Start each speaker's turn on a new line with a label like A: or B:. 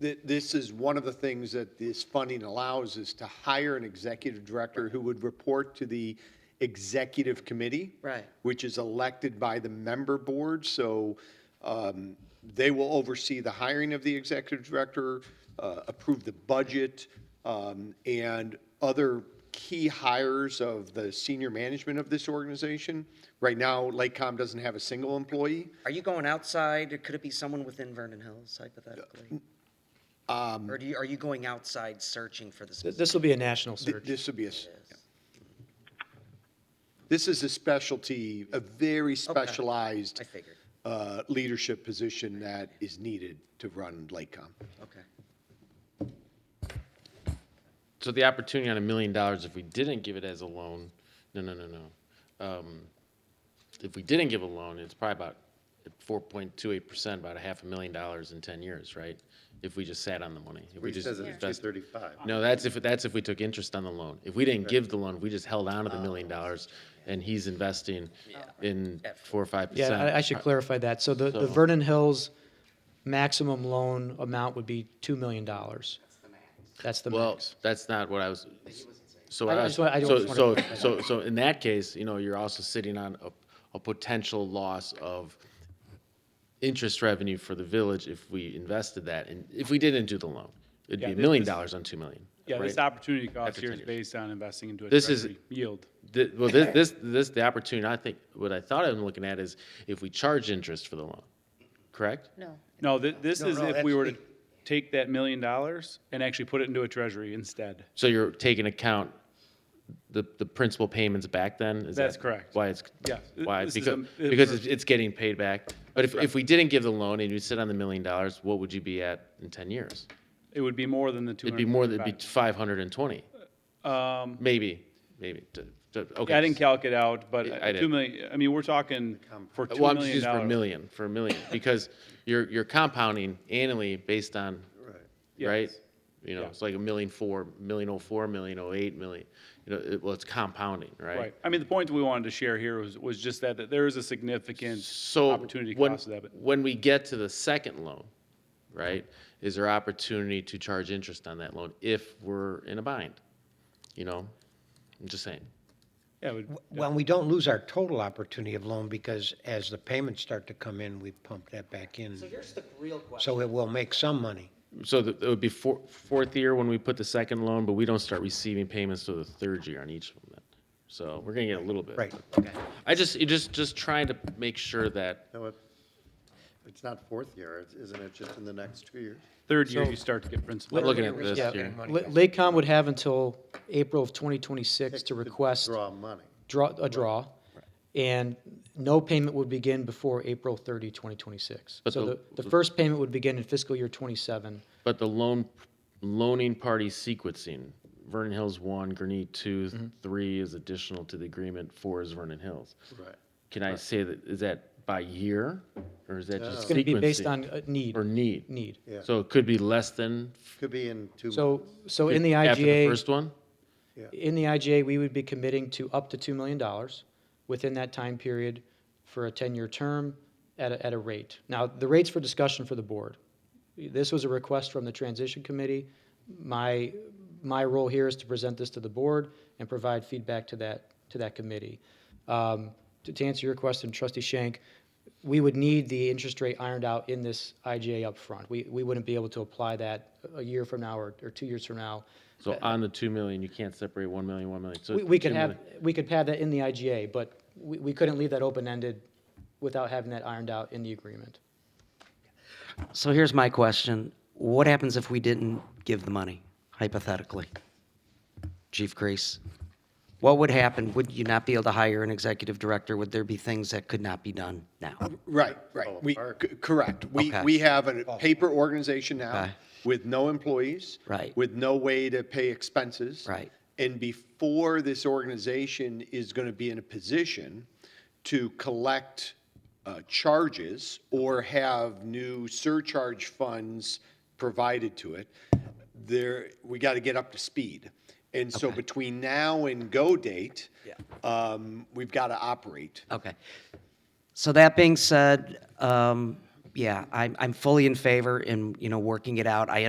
A: Th- This is one of the things that this funding allows is to hire an executive director who would report to the executive committee.
B: Right.
A: Which is elected by the member board, so um, they will oversee the hiring of the executive director, uh, approve the budget, um, and other key hires of the senior management of this organization. Right now, Lakecom doesn't have a single employee.
B: Are you going outside, or could it be someone within Vernon Hills hypothetically? Or do you, are you going outside searching for this?
C: Um, Th- This will be a national
A: Th-
C: search.
A: This would be a, s- This is a specialty, a very specialized
B: I figured,
A: uh, leadership position that is needed to run Lakecom.
B: okay.
D: So the opportunity on a million dollars, if we didn't give it as a loan, no, no, no, no. Um, If we didn't give a loan, it's probably about four point two eight percent, about a half a million dollars in ten years, right? If we just sat on the money. If we
E: He
D: just
E: says it's two
D: invest-
E: thirty-five.
D: No, that's if, that's if we took interest on the loan. If we didn't give the loan, if we just held on to the million dollars and he's investing in four or five percent.
C: Yeah, I- I should clarify that. So the, the
D: Uh, So-
C: Vernon Hills maximum loan amount would be $2 million. That's the max. That's the
D: Well,
C: max.
D: that's not what I was, so,
C: I
D: I was-
C: just wa- I
D: so,
C: just
D: so,
C: wanna-
D: so, so in that case, you know, you're also sitting on a, a potential loss of interest revenue for the village if we invested that, and if we didn't do the loan. It'd
F: Yeah,
D: be a
F: this-
D: million
F: this-
D: dollars on two million.
F: Yeah,
D: right?
F: this opportunity cost
D: After
F: here
D: 10
F: is
D: years.
F: based on investing into a
D: This is-
F: treasury yield.
D: The- Well, this, this, this, the opportunity, I think, what I thought I'm looking at is if we charge interest for the loan, correct?
G: No.
F: No, thi- this
A: No,
F: is
A: no,
F: if we
A: that's-
F: were to take that million dollars and actually put it into a treasury instead.
D: So you're taking account the, the principal payments back then? Is
F: That's
D: that
F: correct.
D: Why it's,
F: Yeah.
D: why,
F: This
D: because,
F: is
D: because
F: a-
D: it's, it's getting paid back. But if, if we didn't give the loan and you sit on the million dollars, what would you be at in ten years?
F: It would be more than the two
D: It'd
F: hundred.
D: be more than, it'd be five hundred and twenty,
F: Um,
D: maybe, maybe, D- d- okay.
F: I didn't calc it out, but
D: I- I
F: uh,
D: did.
F: two million, I mean, we're talking for two
D: Well, I'm just
F: million
D: using for a
F: dollars.
D: million, for a million, because you're, you're compounding annually based on, right?
F: Yes.
D: You know,
F: Yeah.
D: it's like a million four, million oh four, million oh eight, million, you know, it, well, it's compounding,
F: Right. I mean, the point we wanted to share here was, was just that, that there is a significant
D: So
F: opportunity
D: when-
F: cost of that. but-
D: When we get to the second loan, right, is there opportunity to charge interest on that loan if we're in a bind? You know, I'm just saying.
F: Yeah, it would-
H: Well, we don't lose our total opportunity of loan because as the payments start to come in, we pump that back in.
B: So here's the real question.
H: So it will make some money.
D: So the- it would be four, fourth year when we put the second loan, but we don't start receiving payments till the third year on each of them then. So we're gonna get a little bit.
H: Right.
D: I just, you just, just trying to make sure that,
E: No, it, it's not fourth year, it's- isn't it just in the next two years?
F: Third year, you start to get principal.
D: I'm looking at this
C: Yeah,
D: here.
C: La- Lakecom would have until April of 2026 to request
E: Draw money.
C: draw, a draw, and no payment would begin before April 30, 2026.
D: But
C: So
D: the-
C: the, the first payment would begin in fiscal year '27.
D: But the loan, loaning party sequencing, Vernon Hills one, Gurnee two,
C: Mm-hmm.
D: three is additional to the agreement, four is Vernon Hills.
E: Right.
D: Can I say that, is that by year, or is that just sequencing?
C: It's going to be based on uh, need,
D: Or need?
C: need.
E: Yeah.
D: So it could be less than?
E: Could be in two.
C: So, so in the
D: After the
C: IGA,
D: first one?
C: in the IGA, we would be committing to up to $2 million within that time period for a 10-year term at a, at a rate. Now, the rate's for discussion for the board. This was a request from the transition committee. My, my role here is to present this to the board and provide feedback to that, to that committee. Um, To, to answer your question, trustee Shank, we would need the interest rate ironed out in this IGA upfront. We, we wouldn't be able to apply that a year from now or, or two years from now.
D: So on the two million, you can't separate one million, one million. So
C: We, we could
D: 2
C: have,
D: million.
C: we could have that in the IGA, but we, we couldn't leave that open-ended without having that ironed out in the agreement.
B: So here's my question. What happens if we didn't give the money, hypothetically? Chief Crease? What would happen? Would you not be able to hire an executive director? Would there be things that could not be done now?
A: Right, right. We, c- correct. We,
B: Okay.
A: we have a paper organization now
B: Okay.
A: with no employees.
B: Right.
A: With no way to pay expenses.
B: Right.
A: And before this organization is going to be in a position to collect uh, charges or have new surcharge funds provided to it, there, we got to get up to speed. And so between now and go date, um, we've got to operate.
B: Okay. So that being said, um, yeah, I'm, I'm fully in favor in, you know, working it out. I